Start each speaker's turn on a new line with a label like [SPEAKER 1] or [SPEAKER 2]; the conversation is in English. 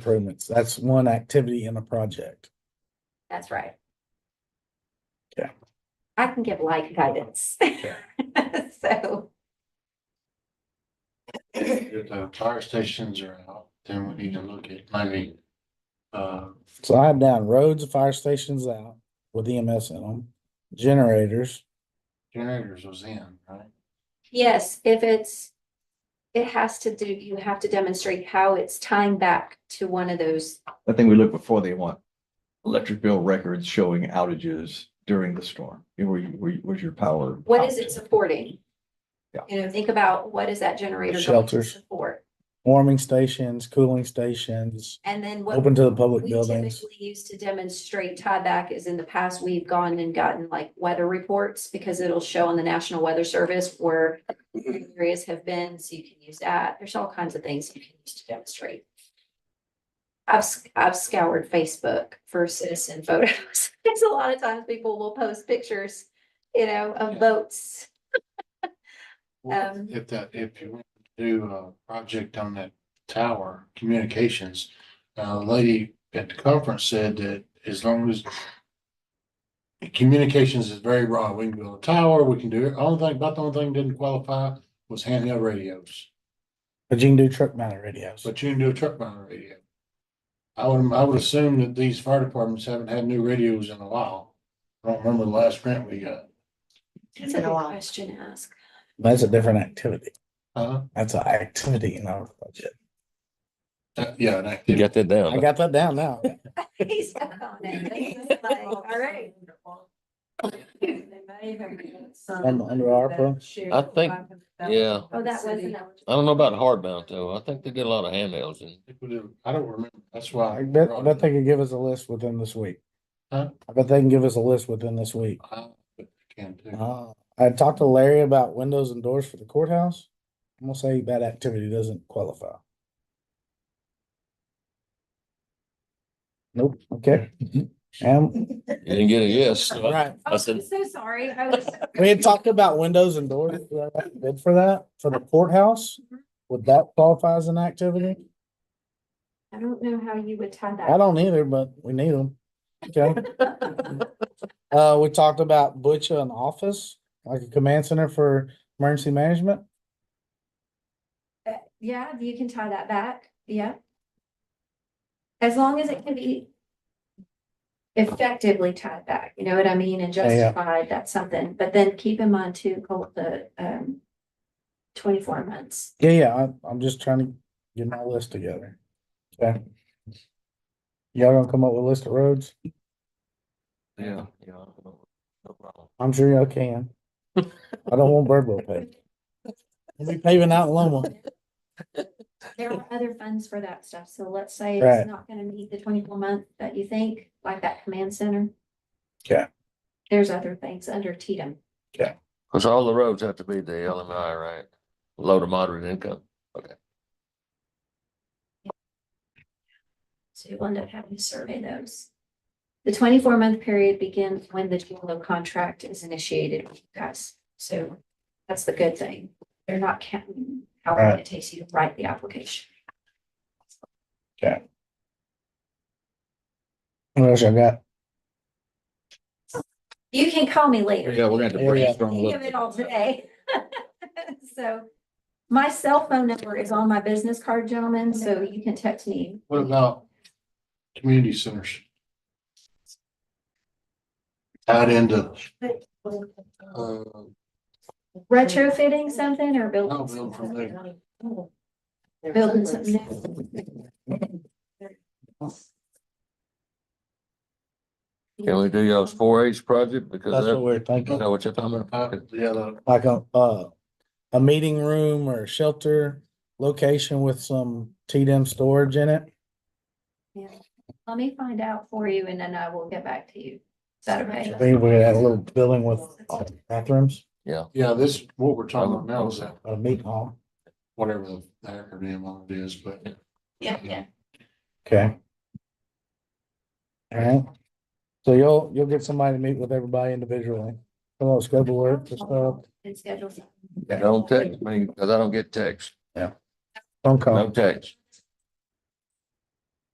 [SPEAKER 1] improvements. That's one activity in a project.
[SPEAKER 2] That's right.
[SPEAKER 1] Yeah.
[SPEAKER 2] I can give like guidance. So,
[SPEAKER 3] If the fire stations are out, then we need to look at maybe, uh,
[SPEAKER 1] So I have down roads, fire stations out with EMS in them, generators.
[SPEAKER 3] generators was in, right?
[SPEAKER 2] yes, if it's, it has to do, you have to demonstrate how it's tying back to one of those.
[SPEAKER 4] I think we look before they want electric bill records showing outages during the storm. Where, you- where, you- where's your power?
[SPEAKER 2] What is it
[SPEAKER 4] out?
[SPEAKER 2] supporting?
[SPEAKER 4] Yeah.
[SPEAKER 2] You know, think about what is that generator going to
[SPEAKER 1] Shelters.
[SPEAKER 2] support?
[SPEAKER 1] warming stations, cooling stations,
[SPEAKER 2] And then what
[SPEAKER 1] open to the public
[SPEAKER 2] we
[SPEAKER 1] buildings.
[SPEAKER 2] typically use to demonstrate tieback is in the past, we've gone and gotten like weather reports because it'll show on the National Weather Service where
[SPEAKER 5] Mm-hmm.
[SPEAKER 2] areas have been, so you can use that. There's all kinds of things you can use to demonstrate. I've, sc- I've scoured Facebook for citizen photos. There's a lot of times people will post pictures, you know, of boats. Um,
[SPEAKER 3] If that, if you want to do a project on that tower, communications, uh, the lady at the conference said that as long as communications is very broad, we can build a tower, we can do it, only thing, about the only thing didn't qualify was handheld radios.
[SPEAKER 1] But you can do truck mounted radios.
[SPEAKER 3] But you can do a truck mounted radio. I would, I would assume that these fire departments haven't had new radios in a while. I don't remember the last grant we got.
[SPEAKER 2] That's a good question to ask.
[SPEAKER 1] That's a different activity.
[SPEAKER 3] Uh,
[SPEAKER 1] That's an activity in our budget.
[SPEAKER 3] uh, yeah, and I
[SPEAKER 5] You got that
[SPEAKER 1] I
[SPEAKER 5] down.
[SPEAKER 1] got that down now.
[SPEAKER 2] He's stuck on it. Like, All right.
[SPEAKER 1] Under- under ARPA?
[SPEAKER 5] I think- yeah.
[SPEAKER 2] Oh, that wasn't.
[SPEAKER 5] I don't know about hardbound though. I think they get a lot of handhelds and
[SPEAKER 3] think we do- I don't remember. That's
[SPEAKER 1] I
[SPEAKER 3] why.
[SPEAKER 1] bet, I bet they could give us a list within this week.
[SPEAKER 3] Huh?
[SPEAKER 1] I bet they can give us a list within this week.
[SPEAKER 3] I Can too.
[SPEAKER 1] Uh, I talked to Larry about windows and doors for the courthouse. I'm gonna say that activity doesn't qualify. Nope, okay. Um,
[SPEAKER 5] you didn't get a yes. so I-
[SPEAKER 1] right,
[SPEAKER 5] I said,
[SPEAKER 2] so sorry. I was.
[SPEAKER 1] we had talked about windows and doors, we had a bid for that, for the courthouse. Would that qualify as an activity?
[SPEAKER 2] I don't know how you would tie that.
[SPEAKER 1] I don't either, but we need them. Okay, uh, we talked about butcher and office, like a command center for emergency management.
[SPEAKER 2] Yeah, you can tie that back. Yeah. As long as it can be effectively tied back, you know what I mean, and
[SPEAKER 1] yeah.
[SPEAKER 2] justified, that's something. But then keep in mind too, Colt, the um twenty-four months.
[SPEAKER 1] Yeah, yeah, I, I'm just trying to get my list together. Okay. Y'all gonna come up with a list of roads?
[SPEAKER 5] Yeah. yeah, no- no problem.
[SPEAKER 1] I'm sure y'all can. I don't want Birdwell paved. We'll be paving out in Loma.
[SPEAKER 2] There are other funds for that stuff, so let's say
[SPEAKER 1] Right.
[SPEAKER 2] it's not gonna meet the twenty-four month that you think, like that command center.
[SPEAKER 1] Okay.
[SPEAKER 2] There's other things under Tatum.
[SPEAKER 5] Cause all the roads have to be the LMI, right? Low to moderate income.
[SPEAKER 2] So you'll end up having to survey those. The twenty-four month period begins when the GLO contract is initiated with you guys, so that's the good thing. They're not counting how long it takes you to write the application.
[SPEAKER 1] What else y'all got?
[SPEAKER 2] You can call me later.
[SPEAKER 5] Yeah, we're gonna have to
[SPEAKER 1] Yeah, yeah.
[SPEAKER 5] brainstorm a
[SPEAKER 2] Think of it all
[SPEAKER 5] little.
[SPEAKER 2] today. So my cell phone number is on my business card, gentlemen, so you can text me.
[SPEAKER 3] What about community centers? Tied into, uh,
[SPEAKER 2] Retrofitting something or
[SPEAKER 3] I'll
[SPEAKER 2] building?
[SPEAKER 3] build
[SPEAKER 2] something?
[SPEAKER 3] from there.
[SPEAKER 2] Building something new?
[SPEAKER 5] Can we do y'all's four H project? Because
[SPEAKER 1] That's what
[SPEAKER 5] that's,
[SPEAKER 1] we're
[SPEAKER 5] you
[SPEAKER 1] thinking,
[SPEAKER 5] know what you're talking about.
[SPEAKER 3] Uh, Yeah, the-
[SPEAKER 1] like a, uh, a meeting room or a shelter location with some T-Dem storage in it.
[SPEAKER 2] Let me find out for you and then I will get back to you. Is that okay?
[SPEAKER 1] I think we had a little building with uh, bathrooms,
[SPEAKER 3] yeah, this, what we're talking about now is that,
[SPEAKER 1] a meeting hall.
[SPEAKER 3] whatever the acronym on it is, but.
[SPEAKER 2] Yeah, yeah.
[SPEAKER 1] Okay. All right. So you'll, you'll get somebody to meet with everybody individually. Come on, scope of work, just, uh,
[SPEAKER 2] And schedule. something.
[SPEAKER 5] Don't text me, cause I don't get text.
[SPEAKER 1] phone
[SPEAKER 5] No
[SPEAKER 1] call.
[SPEAKER 5] text.